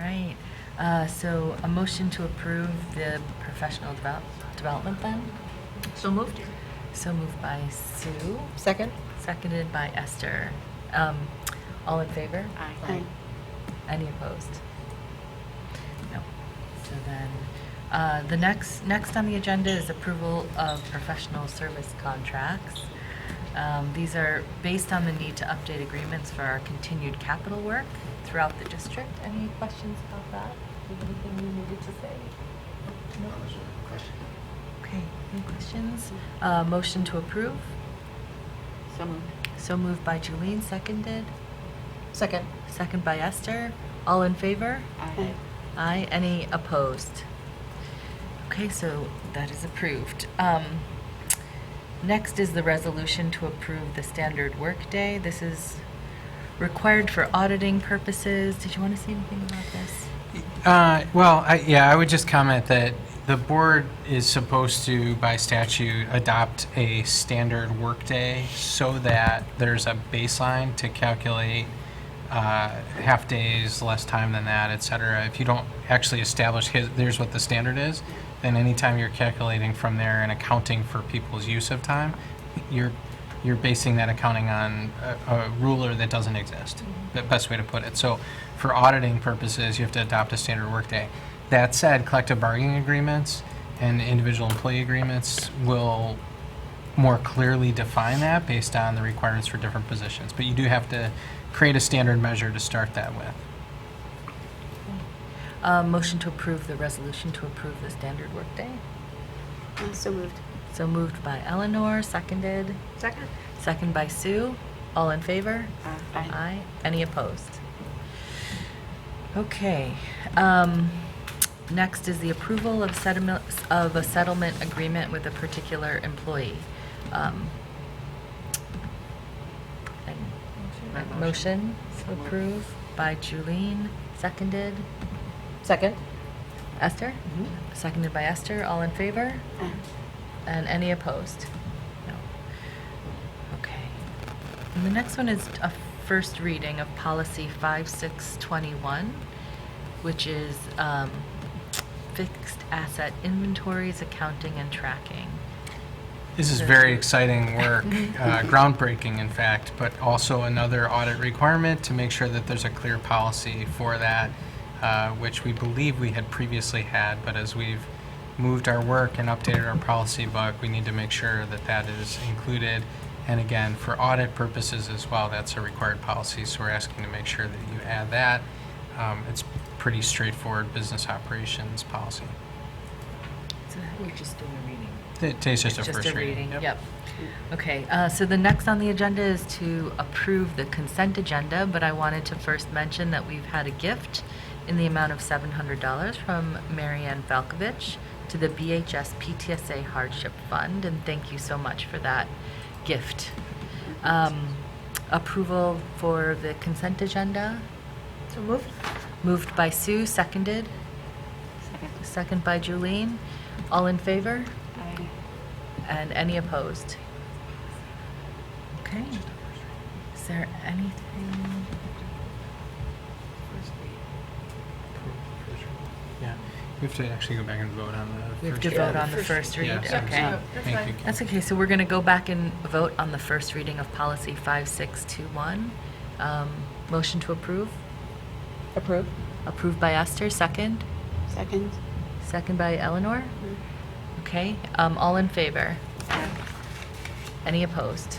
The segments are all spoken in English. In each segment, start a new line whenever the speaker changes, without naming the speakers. right. Uh, So a motion to approve the professional develop- development plan?
So moved.
So moved by Sue,
Second?
seconded by Esther. Um, All in favor?
Aye.
Any opposed? No. So then, uh, the next, next on the agenda is approval of professional service contracts. Um, These are based on the need to update agreements for our continued capital work throughout the district. Any questions about that? Is there Anything you needed to say? No? Okay, any questions? Uh, Motion to approve.
So moved.
So moved by Julie, seconded.
Second.
Second by Esther. All in favor?
Aye.
Aye. Any opposed? Okay, so that is approved. Um, Next is the resolution to approve the standard workday. This is required for auditing purposes. Did you want to say anything about this?
Uh, Well, I- yeah, I would just comment that the board is supposed to, by statute, adopt a standard workday so that there's a baseline to calculate uh, half-days, less time than that, et cetera. If you don't actually establish, his- here's what the standard is, then anytime you're calculating from there and accounting for people's use of time, you're, you're basing that accounting on a, a ruler that doesn't exist, the best way to put it. So for auditing purposes, you have to adopt a standard workday. That said, collective bargaining agreements and individual employee agreements will more clearly define that based on the requirements for different positions. But you do have to create a standard measure to start that with.
Uh, Motion to approve the resolution to approve the standard workday.
Uh, So moved.
So moved by Eleanor, seconded.
Second.
Second by Sue. All in favor?
Uh, Aye.
Aye. Any opposed? Okay. um, Next is the approval of settlement, of a settlement agreement with a particular employee. Um, and-
Motion.
Motion to approve by Julene, seconded.
Second?
Esther? Seconded by Esther. All in favor? And any opposed? No. Okay. And the next one is a first reading of policy 5621, which is um, fixed asset inventories, accounting, and tracking.
This is very exciting work, uh, groundbreaking, in fact, but also another audit requirement to make sure that there's a clear policy for that, uh, which we believe we had previously had, but as we've moved our work and updated our policy book, we need to make sure that that is included. And again, for audit purposes as well, that's a required policy, so we're asking to make sure that you add that. Um, It's pretty straightforward business operations policy.
So we're just doing a reading.
It takes just a first reading.
Yep. Okay, uh, so the next on the agenda is to approve the consent agenda, but I wanted to first mention that we've had a gift in the amount of $700 from Marianne Falkovich to the BHS PTSA Hardship Fund, and thank you so much for that gift. Um, Approval for the consent agenda,
So moved.
moved by Sue, seconded,
Second.
second by Julene. All in favor?
Aye.
And any opposed? Okay. Is there anything?
Yeah, we have to actually go back and vote on the.
We have
first
to
reading.
vote on the first read?
Yeah, so-
Okay.
Thank you. Kate.
That's okay, so we're going to go back and vote on the first reading of policy 5621. Um, Motion to approve?
Approved.
Approved by Esther, second?
Second?
Second by Eleanor? Okay, um, all in favor? Any opposed?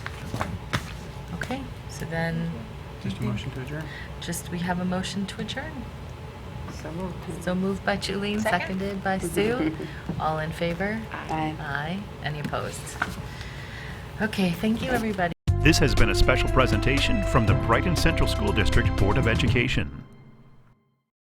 Okay, so then,
Just a motion to adjourn?
just, we have a motion to adjourn?
So moved.
So moved by Julie, seconded by Sue. All in favor?
Aye.
Aye. Any opposed? Okay, thank you, everybody.
This has been a special presentation from the Brighton Central School District Board of Education.